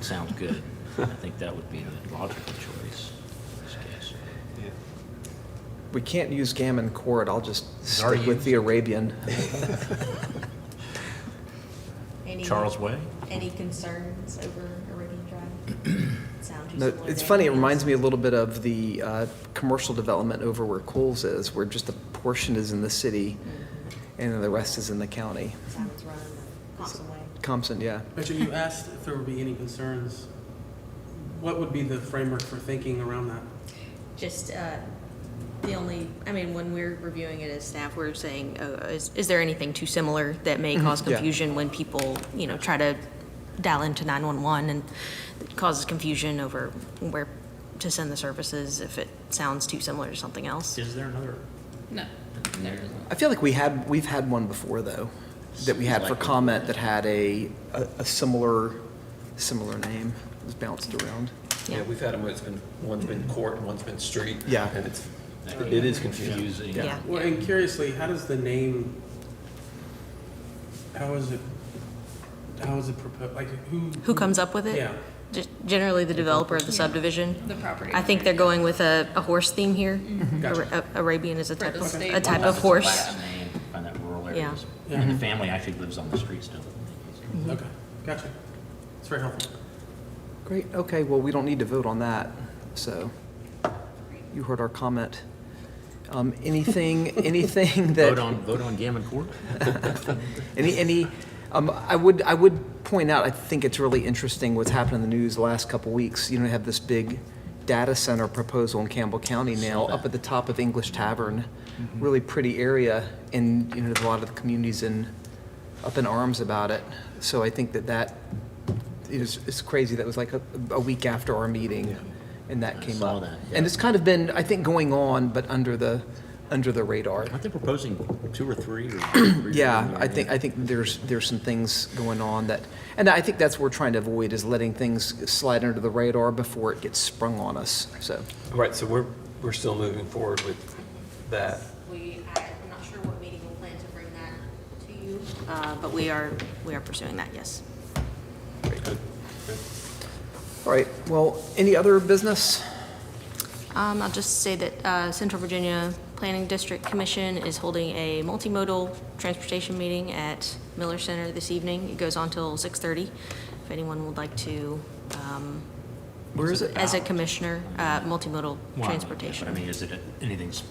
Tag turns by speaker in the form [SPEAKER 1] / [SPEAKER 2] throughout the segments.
[SPEAKER 1] sounds good. I think that would be the logical choice in this case.
[SPEAKER 2] We can't use gammon chord, I'll just
[SPEAKER 1] It's already
[SPEAKER 2] stick with the
[SPEAKER 1] used.
[SPEAKER 2] Arabian.
[SPEAKER 3] Any-
[SPEAKER 1] Charles Way?
[SPEAKER 3] Any concerns over Arabian Drive? Sounds
[SPEAKER 2] No,
[SPEAKER 3] useful
[SPEAKER 2] It's
[SPEAKER 3] to
[SPEAKER 2] funny, it
[SPEAKER 3] everyone
[SPEAKER 2] reminds
[SPEAKER 3] else.
[SPEAKER 2] me a little bit of the uh, commercial development over where Coles is, where just a portion is in the city and then the rest is in the county.
[SPEAKER 3] Simon's Run, Thompson Way.
[SPEAKER 2] Compson, yeah.
[SPEAKER 4] Richard, you asked if there would be any concerns. What would be the framework for thinking around that?
[SPEAKER 3] Just, uh, the only, I mean, when we're reviewing it as staff, we're saying, uh, is, is there anything too similar that may cause
[SPEAKER 2] Mm-hmm. yeah.
[SPEAKER 3] confusion when people, you know, try to dial into 911 and it causes confusion over where to send the services if it sounds too similar to something else?
[SPEAKER 4] Is there another?
[SPEAKER 5] No, there isn't.
[SPEAKER 2] I feel like we had, we've had one before, though, that we had for
[SPEAKER 1] Like-
[SPEAKER 2] comment that had a, a a similar, similar name. It was bounced around.
[SPEAKER 3] Yeah.
[SPEAKER 6] Yeah, we've had them, where it's been, one's been court and one's been street.
[SPEAKER 2] Yeah.
[SPEAKER 6] And it's, it is confusing.
[SPEAKER 1] Confusing.
[SPEAKER 3] Yeah.
[SPEAKER 4] Well, and curiously, how does the name, how is it, how is it proposed, like, who?
[SPEAKER 3] Who comes up with it?
[SPEAKER 4] Yeah.
[SPEAKER 3] Just generally the developer of the subdivision?
[SPEAKER 5] The property.
[SPEAKER 3] I think they're going with a, a horse theme here.
[SPEAKER 1] Mm-hmm.
[SPEAKER 4] Gotcha.
[SPEAKER 3] Ara- Arabian is a
[SPEAKER 5] For
[SPEAKER 3] type
[SPEAKER 5] the
[SPEAKER 3] of,
[SPEAKER 5] state
[SPEAKER 3] a type
[SPEAKER 5] laws,
[SPEAKER 3] of
[SPEAKER 5] it's
[SPEAKER 3] horse.
[SPEAKER 1] Latin name, Find that rural
[SPEAKER 3] Yeah.
[SPEAKER 1] areas.
[SPEAKER 4] Yeah.
[SPEAKER 1] And the family actually lives on the street still.
[SPEAKER 4] Okay, gotcha. It's very helpful.
[SPEAKER 2] Great, okay, well, we don't need to vote on that, so you heard our comment. Um, Anything, anything that.
[SPEAKER 1] Vote on, vote on Gammon Court?
[SPEAKER 2] Any, any, um, I would, I would point out, I think it's really interesting what's happened in the news the last couple weeks. You know, we have this big data center proposal in Campbell County now, up at the top of English Tavern.
[SPEAKER 1] Mm-hmm.
[SPEAKER 2] Really pretty area, and, you know, there's a lot of the communities in, up in arms about it. So I think that that is, is crazy. That was like a, a week after our meeting, and that
[SPEAKER 1] I
[SPEAKER 2] came
[SPEAKER 1] saw
[SPEAKER 2] up.
[SPEAKER 1] that, yeah.
[SPEAKER 2] And it's kind of been, I think, going on, but under the, under the radar.
[SPEAKER 1] Aren't they proposing two or three? or three
[SPEAKER 2] Yeah,
[SPEAKER 1] or-
[SPEAKER 2] I think, I think there's, there's some things going on that, and I think that's what we're trying to avoid, is letting things slide under the radar before it gets sprung on us, so.
[SPEAKER 6] Right, so we're, we're still moving forward with that.
[SPEAKER 3] We, I'm not sure what meeting we'll plan to bring that to you. Uh, but we are, we are pursuing that, yes.
[SPEAKER 2] All right, well, any other business?
[SPEAKER 3] Um, I'll just say that, uh, Central Virginia Planning District Commission is holding a multimodal transportation meeting at Miller Center this evening. It goes on till six-thirty. If anyone would like to, um,
[SPEAKER 2] Where is it?
[SPEAKER 3] as a commissioner, uh, multimodal
[SPEAKER 1] Well, yeah,
[SPEAKER 3] transportation.
[SPEAKER 1] but I mean, is it a- anything, s-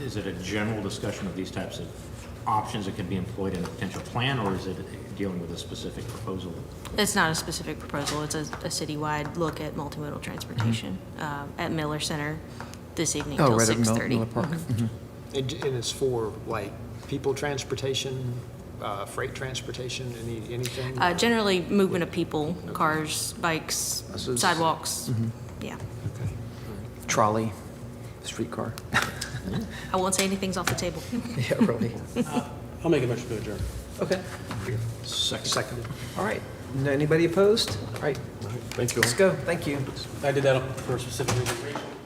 [SPEAKER 1] is it a general discussion of these types of options that can be employed in a potential plan, or is it dealing with a specific proposal?
[SPEAKER 3] It's not a specific proposal, it's a, a citywide look at multimodal transportation, uh, at Miller Center this evening till six thirty. Mm-hmm.
[SPEAKER 7] And and it's for like people transportation, uh, freight transportation, any, anything?
[SPEAKER 3] Uh, generally, movement of people, cars, bikes, sidewalks, yeah.
[SPEAKER 2] Trolley, streetcar.
[SPEAKER 3] I won't say anything's off the table.
[SPEAKER 2] Yeah, really.
[SPEAKER 4] I'll make a motion to adjourn.
[SPEAKER 2] Okay,
[SPEAKER 7] Seconded.
[SPEAKER 2] all right. No- Anybody opposed? All right,
[SPEAKER 6] Thank you all.
[SPEAKER 2] let's go, thank you.
[SPEAKER 4] I did that for a specific reason.